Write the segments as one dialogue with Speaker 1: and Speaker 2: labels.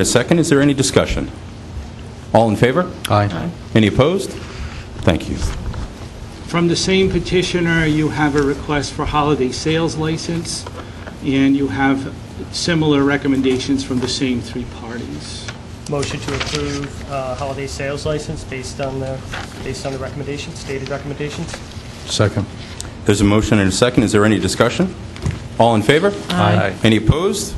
Speaker 1: A second, is there any discussion? All in favor?
Speaker 2: Aye.
Speaker 1: Any opposed? Thank you.
Speaker 3: From the same petitioner, you have a request for holiday sales license, and you have similar recommendations from the same three parties.
Speaker 4: Motion to approve uh, holiday sales license based on the, based on the recommendations, stated recommendations.
Speaker 2: Second.
Speaker 1: There's a motion and a second, is there any discussion? All in favor?
Speaker 2: Aye.
Speaker 1: Any opposed?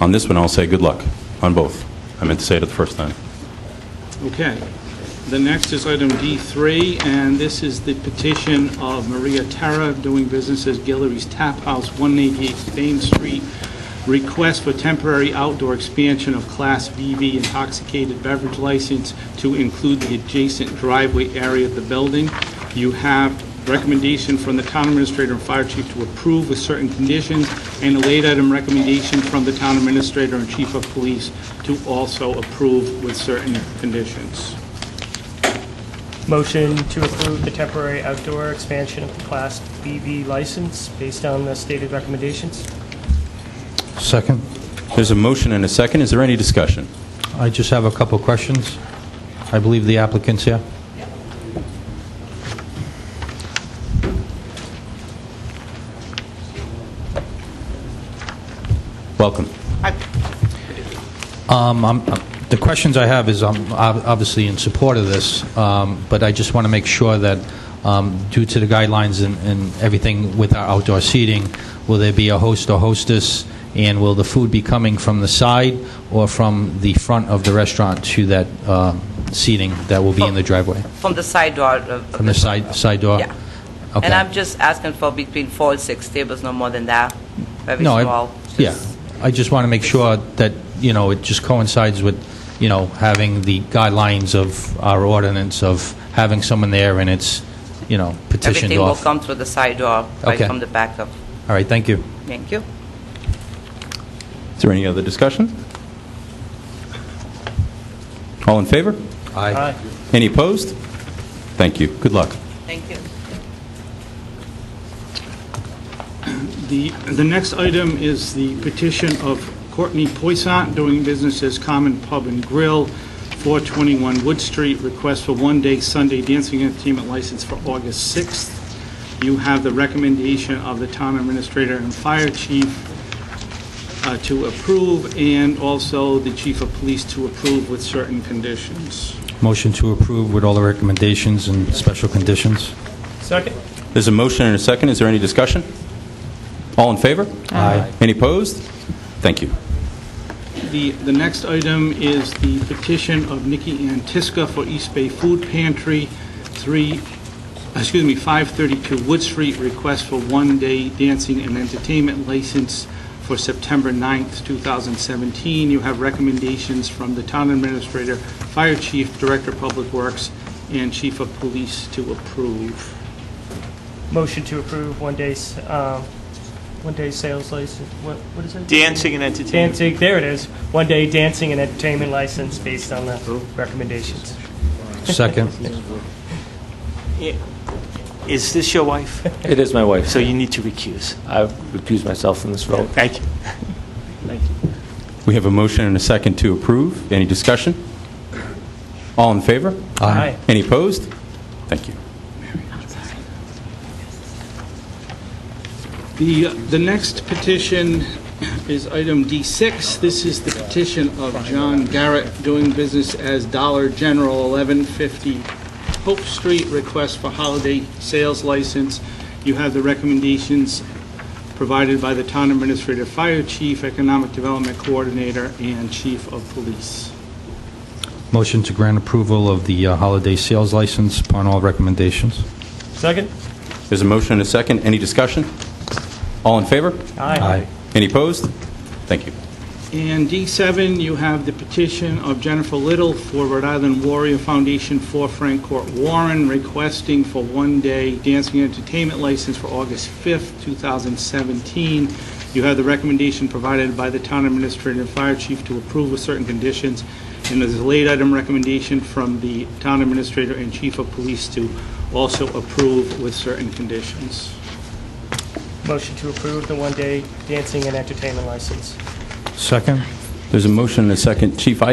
Speaker 1: On this one, I'll say good luck, on both. I meant to say it the first time.
Speaker 3: Okay. The next is item D3, and this is the petition of Maria Terra, doing business as Guillory's Tap House, 188 Thames Street, request for temporary outdoor expansion of Class BV intoxicated beverage license to include the adjacent driveway area of the building. You have recommendation from the town administrator and fire chief to approve with certain conditions, and a late item recommendation from the town administrator and chief of police to also approve with certain conditions.
Speaker 4: Motion to approve the temporary outdoor expansion of the Class BV license based on the stated recommendations.
Speaker 2: Second.
Speaker 1: There's a motion and a second, is there any discussion?
Speaker 2: I just have a couple questions. I believe the applicant's here.
Speaker 1: Welcome.
Speaker 2: Um, I'm- uh, The questions I have is I'm ob- obviously in support of this, um, but I just want to make sure that um, due to the guidelines and- and everything with our outdoor seating, will there be a host or hostess, and will the food be coming from the side or from the front of the restaurant to that uh, seating that will be in the driveway?
Speaker 5: From the side door of... of
Speaker 2: From the side side door?
Speaker 5: Yeah.
Speaker 2: Okay.
Speaker 5: And I'm just asking for between four and six tables, no more than that. Very
Speaker 2: No, I-
Speaker 5: small.
Speaker 2: Yeah,
Speaker 5: just-
Speaker 2: I just want to make sure that, you know, it just coincides with, you know, having the guidelines of our ordinance of having someone there and it's, you know, petitioned
Speaker 5: Everything will
Speaker 2: off. All
Speaker 5: come through the side door, right
Speaker 2: Okay.
Speaker 5: from the back of.
Speaker 2: right, thank you.
Speaker 5: Thank you.
Speaker 1: Is there any other discussion? All in favor?
Speaker 2: Aye.
Speaker 1: Any opposed? Thank you, good luck.
Speaker 5: Thank you.
Speaker 3: The, the next item is the petition of Courtney Poissant, doing business as Common Pub and Grill, 421 Wood Street, request for one-day Sunday dancing entertainment license for August 6th. You have the recommendation of the town administrator and fire chief uh, to approve, and also the chief of police to approve with certain conditions.
Speaker 2: Motion to approve with all the recommendations and special conditions.
Speaker 4: Second.
Speaker 1: There's a motion and a second, is there any discussion? All in favor?
Speaker 2: Aye.
Speaker 1: Any opposed? Thank you.
Speaker 3: The, the next item is the petition of Nikki Antiska for East Bay Food Pantry, 3, excuse me, 532 Wood Street, request for one-day dancing and entertainment license for September 9th, 2017. You have recommendations from the town administrator, fire chief, director of public works, and chief of police to approve.
Speaker 4: Motion to approve one day, s- um, one day sales license, what, what is it?
Speaker 6: Dancing and entertainment.
Speaker 4: Dancing, there it is. One day dancing and entertainment license based on the recommendations.
Speaker 2: Second.
Speaker 6: Is this your wife?
Speaker 7: It is my wife,
Speaker 6: So
Speaker 7: so
Speaker 6: you need to recuse.
Speaker 7: I recuse myself from this vote.
Speaker 6: Thank you.
Speaker 1: We have a motion and a second to approve. Any discussion? All in favor?
Speaker 4: Aye.
Speaker 1: Any opposed? Thank you.
Speaker 3: The, the next petition is item D6. This is the petition of John Garrett, doing business as Dollar General, 1150 Hope Street, request for holiday sales license. You have the recommendations provided by the Town Administrator, Fire Chief, Economic Development Coordinator, and Chief of Police.
Speaker 2: Motion to grant approval of the uh, holiday sales license upon all recommendations.
Speaker 4: Second?
Speaker 1: There's a motion and a second. Any discussion? All in favor?
Speaker 4: Aye.
Speaker 1: Any opposed? Thank you.
Speaker 3: And D7, you have the petition of Jennifer Little for Rhode Island Warrior Foundation for Frank Court Warren requesting for one-day dancing and entertainment license for August 5th, 2017. You have the recommendation provided by the town administrator and fire chief to approve with certain conditions, and there's a late item recommendation from the town administrator and chief of police to also approve with certain conditions.
Speaker 4: Motion to approve the one-day dancing and entertainment license.
Speaker 2: Second.
Speaker 1: There's a motion and a second. Chief, I